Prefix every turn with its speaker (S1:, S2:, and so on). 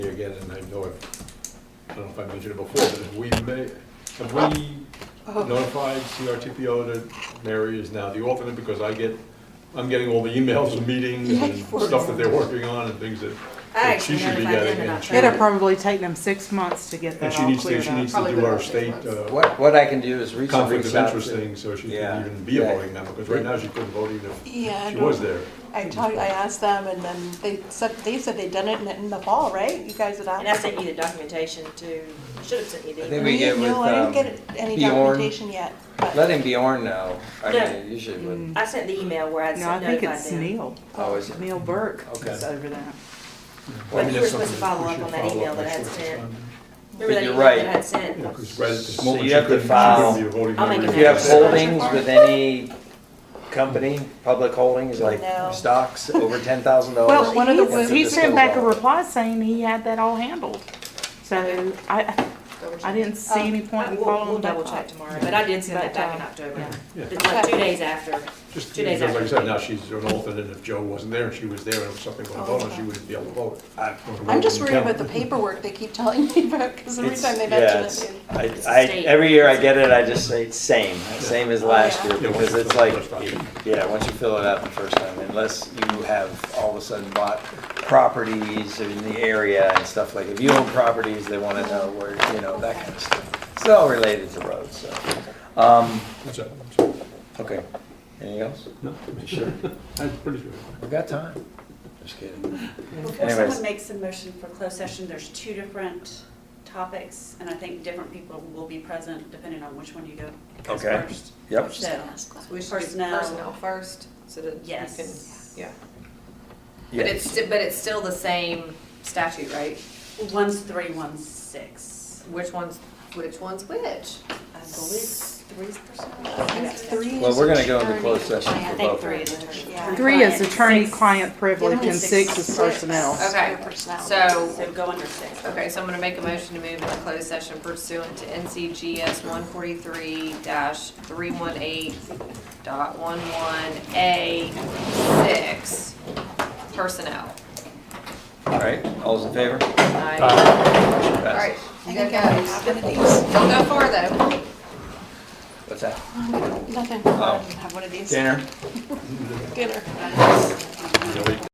S1: again, and I know I've, I don't know if I mentioned it before, but have we made, have we
S2: Oh.
S1: notified CRTPO that Mary is now the alternate, because I get, I'm getting all the emails and meetings and
S3: Yeah, you
S1: stuff that
S3: were.
S1: they're working on and things that,
S2: I
S1: that she
S2: actually
S1: should be
S2: notified them
S1: getting. and
S2: about
S1: she-
S2: that.
S3: It'll probably take them six months to get
S1: And
S3: that
S1: she
S3: all
S1: needs to,
S3: cleared
S1: she
S3: up.
S1: needs to
S2: Probably
S1: do our
S2: within six
S1: state
S2: months.
S1: uh,
S4: What, what I can do is reach,
S1: conflict
S4: reach
S1: of
S4: out
S1: interest
S4: to.
S1: thing, so she
S4: Yeah,
S1: can even be a
S4: yeah.
S1: voting member, because right now she couldn't vote even if
S5: Yeah, I
S1: she
S5: know.
S1: was there.
S5: I talked, I asked them and then they said, they said they'd done it in the- in the fall, right? You guys had
S2: And I
S5: asked?
S2: sent you the documentation too. I should have sent you
S4: I
S2: the
S4: think
S2: email.
S4: we get with,
S5: No, I
S4: um,
S5: didn't get any
S4: Bjorn.
S5: documentation yet, but,
S4: Let him be Bjorn know. I
S2: No.
S4: mean, you should would.
S2: I sent the email where I'd
S3: No, I
S2: sent
S3: think
S2: notified
S3: it's
S2: them.
S3: Neil,
S4: Oh, is it?
S3: Neil Burke
S4: Okay.
S3: is over that.
S4: Well,
S2: But you were supposed to follow up on that email that I had sent. Remember that
S4: You're
S2: email
S4: right.
S2: that I had sent?
S1: Because right at this
S4: So
S1: moment,
S4: you
S1: she
S4: have to
S1: couldn't, she
S4: file-
S1: couldn't be a voting
S2: I'll
S1: member.
S2: make
S4: If
S2: a
S4: you have holdings with any company, public holdings, like
S5: No.
S4: stocks over ten thousand
S6: Oh,
S3: Well,
S4: dollars.
S3: one of the,
S4: he's-
S3: he sent back a
S4: Disposal.
S3: reply saying he had that all handled. So I, I didn't see any point
S2: Uh,
S3: in
S2: We'll, we'll
S3: following that
S2: double check
S3: up.
S2: tomorrow, but I did send
S3: But,
S2: that back in
S3: uh,
S2: October.
S3: yeah.
S1: Yeah.
S2: It's like two days after.
S1: Just,
S2: Two days
S1: because like I
S2: after.
S1: said, now she's an alternate, and if Joe wasn't there, and she was there, and if something went
S5: Oh,
S1: wrong,
S5: okay.
S1: she wouldn't be able to vote.
S4: I-
S5: I'm just worried
S1: Count.
S5: about the paperwork they keep telling me about, because every
S4: It's-
S5: time they
S4: yeah,
S5: mention
S4: it's-
S5: it.
S4: I,
S2: It's
S4: I,
S2: state.
S4: every year I get it, I just say it's same, same as last
S5: Yeah.
S4: year,
S1: Yeah, once
S4: because
S1: you
S4: it's
S1: fill
S4: like,
S1: it the first time.
S4: yeah, once you fill it out the first time, unless you have all of a sudden bought properties in the area and stuff like, if you own properties, they wanna know where, you know, that kind of stuff. It's all related to roads, so. Um,
S1: That's it. So,
S4: okay, anything else?
S1: No,
S4: Sure.
S1: I'm pretty sure.
S4: We've got time, just kidding.
S6: Before
S4: Anyways.
S6: someone makes a motion for closed session, there's two different topics, and I think different people will be present depending on which one you go goes
S4: Okay.
S6: first.
S4: Yep,
S6: So,
S5: But
S7: We should do
S6: Personnel.
S7: personnel first, so that you can,
S6: Yes.
S7: yeah. But it's,
S4: yes,
S7: sti- but it's still the same statute, right?
S6: one's three, one's six.
S7: Which one's, which one's which?
S6: I believe
S7: Three's
S5: I
S7: personnel.
S5: think three
S4: well,
S5: is
S4: we're gonna go into
S5: attorney.
S4: closed session
S2: I
S4: for
S2: think
S4: both.
S2: three is attorney.
S5: Yeah.
S3: Three is
S6: Client, six.
S3: attorney-client privilege
S6: Yeah,
S3: and six is
S5: Six.
S3: personnel.
S7: Okay,
S5: Their personality.
S7: so-
S6: So go under six.
S7: Okay, so I'm gonna make a motion to move into closed session pursuant to NCGS one forty-three three one eight dot one one A six, personnel.
S4: All right, all's in favor?
S7: Aye.
S1: Uh,
S7: All
S4: Passes.
S7: right,
S5: I think I have a copy of these.
S7: don't go far though.
S4: What's that?
S5: Nothing.
S4: Oh.
S5: Have one of these.
S4: Dinner?
S5: Dinner.